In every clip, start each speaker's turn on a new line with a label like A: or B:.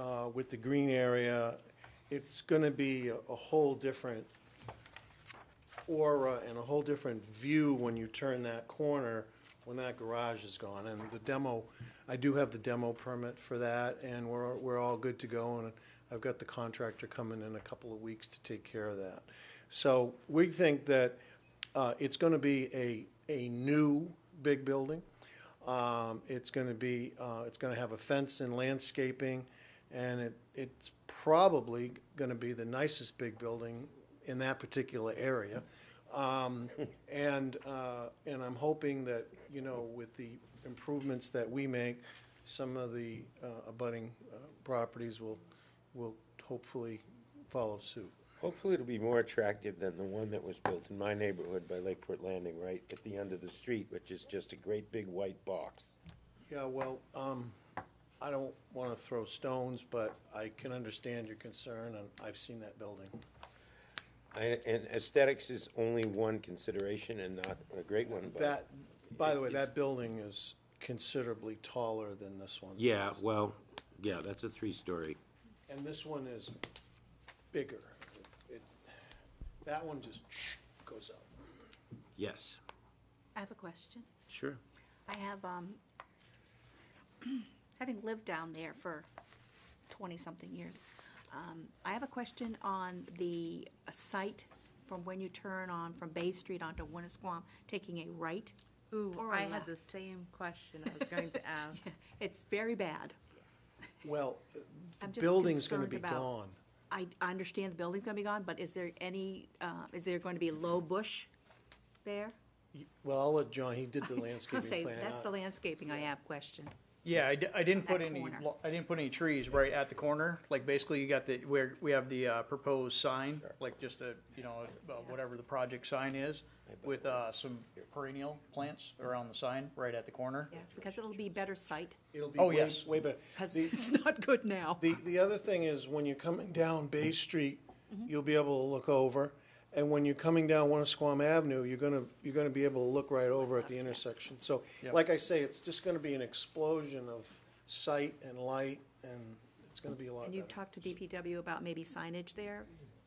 A: uh, with the green area, it's going to be a a whole different aura and a whole different view when you turn that corner, when that garage is gone. And the demo, I do have the demo permit for that, and we're, we're all good to go, and I've got the contractor coming in a couple of weeks to take care of that. So we think that uh, it's going to be a, a new big building. Um, It's going to be, uh, it's going to have a fence and landscaping, and it, it's probably going to be the nicest big building in that particular area. Um, And, uh, and I'm hoping that, you know, with the improvements that we make, some of the uh, abutting uh, properties will, will hopefully follow suit.
B: Hopefully it'll be more attractive than the one that was built in my neighborhood by Lakeport Landing, right at the end of the street, which is just a great big white box.
A: Yeah, well, um, I don't want to throw stones, but I can understand your concern, and I've seen that building.
B: I- And aesthetics is only one consideration and not a great one, but.
A: That, by the way,
B: It's-
A: that building is considerably taller than this one.
B: Yeah, well, yeah, that's a three-story.
A: And this one is bigger. It- That one just goes up.
B: Yes,
C: I have a question.
B: sure.
C: I have, um, having lived down there for twenty-something years, um, I have a question on the uh, site from when you turn on from Bay Street onto Winnisquam, taking a right.
D: Ooh,
C: or a
D: I had the
C: left.
D: same question I was going to ask.
C: It's very bad.
A: Well, the
C: I'm just
A: building's going to
C: concerned
A: be
C: about-
A: gone.
C: I, I understand the building's gonna be gone, but is there any, uh, is there going to be low bush there?
A: Well, I'll let John, he did the
C: I'll say,
A: landscaping plan.
C: that's
A: I-
C: the landscaping I have question.
E: Yeah, I, d- I didn't
C: That
E: put any,
C: corner.
E: lo- I didn't put any trees right at the corner, like basically you got the, where, we have the, uh, proposed sign, like just a, you know, uh, whatever the project sign is, with, uh, some perennial plants around the sign, right at the corner.
C: Yeah, because it'll be better site,
A: It'll be
E: Oh,
A: way,
E: yes.
A: way better.
C: because
A: The-
C: it's not good now.
A: The, the other thing is, when you're coming down Bay Street,
C: Mm-hmm.
A: you'll be able to look over, and when you're coming down Winnisquam Avenue, you're gonna, you're gonna be able to look right over at the intersection. So,
E: Yep.
A: like I say, it's just gonna be an explosion of sight and light, and it's gonna be a lot
C: And you
A: better.
C: talked to DPW about maybe signage there,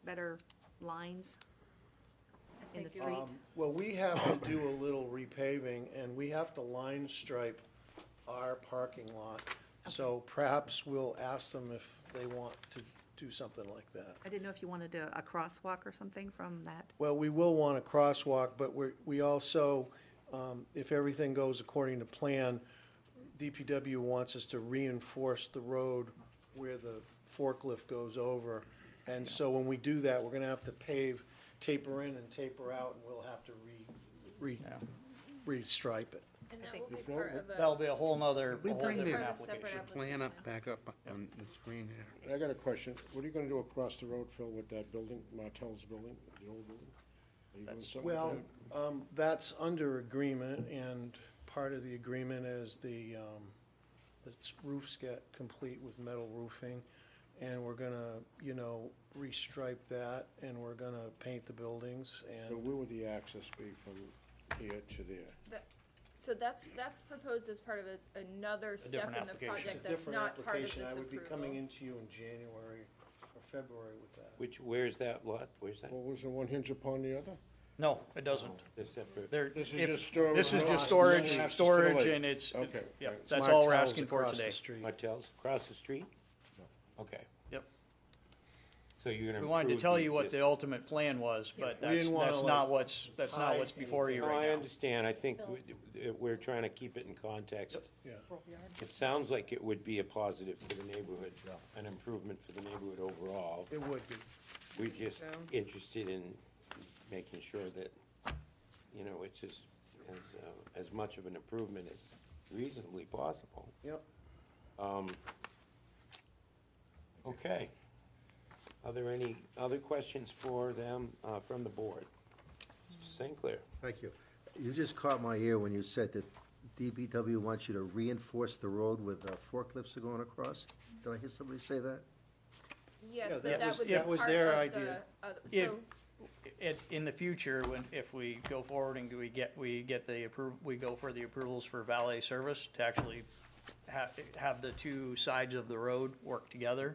C: better lines in the street?
A: Um, Well, we have to do a little repaving, and we have to line stripe our parking lot, so perhaps we'll ask them if they want to do something like that.
C: I didn't know if you wanted a, a crosswalk or something from that.
A: Well, we will want a crosswalk, but we're, we also, um, if everything goes according to plan, DPW wants us to reinforce the road where the forklift goes over. And so when we do that, we're gonna have to pave, taper in and taper out, and we'll have to re, re, restripe it.
F: And
C: I
F: that
C: think
F: will be
G: Before
F: part
G: we-
F: of a.
E: That'll be a whole nother, a
G: We
E: whole
G: bring
E: different
G: the-
F: part of a
E: application.
F: separate
G: Plan
F: application.
G: up back up on the screen here.
H: I got a question. What are you gonna do across the road, Phil, with that building, Martell's building, the old building? Are you doing something with
A: Well,
H: that?
A: um, that's under agreement, and part of the agreement is the, um, the s- roofs get complete with metal roofing, and we're gonna, you know, restripe that, and we're gonna paint the buildings,
H: So
A: and
H: where would the access be from here to there?
F: That- So that's, that's proposed as part of a- another step
E: different
F: in the
A: it's
E: application.
A: a
F: project that's
A: different
F: not part of this
A: application.
F: approval.
A: I would be coming into you in January or February with that.
B: Which, where's that lot? Where's that?
H: Well, was the one hinge upon the other?
E: No, it doesn't.
B: They're separate.
E: There,
H: Oh. This is
E: if-
H: just storage.
E: This is
H: Well,
E: just
H: it's
E: storage,
H: just an
E: storage,
H: facility.
E: and it's,
H: Okay,
E: yeah,
H: right.
E: that's all we're
A: Martell's
E: asking for
A: across the
E: today.
A: street.
B: Martels, across the street? Okay,
E: Yep.
B: so you're gonna.
E: We wanted to
B: improve
E: tell
B: the
E: you what the
B: existing-
E: ultimate plan was, but
A: We
E: that's,
A: didn't wanna,
E: that's
A: like,
E: not what's, that's not
A: hide
E: what's before you
B: No, I
E: right now.
B: understand, I think we- we're trying to keep it in context.
A: Yeah.
B: It sounds like it would be a positive for the neighborhood, an improvement for the neighborhood overall.
A: It would be.
B: We're just interested in making sure that, you know, it's as, as, uh, as much of an improvement as reasonably possible.
A: Yep.
B: Okay. Are there any other questions for them, uh, from the board? Mr. St. Clair?
I: Thank you. You just caught my ear when you said that DPW wants you to reinforce the road with uh, forklifts are going across. Did I hear somebody say that?
F: Yes,
A: Yeah,
F: but
A: that
F: that
A: was-
F: would be
A: that
F: part
A: was
F: of
A: their
F: the,
A: idea.
F: uh,
E: Yeah.
F: so,
E: It, in the future, when, if we go forward and we get, we get the approv, we go for the approvals for valet service to actually have, have the two sides of the road work together,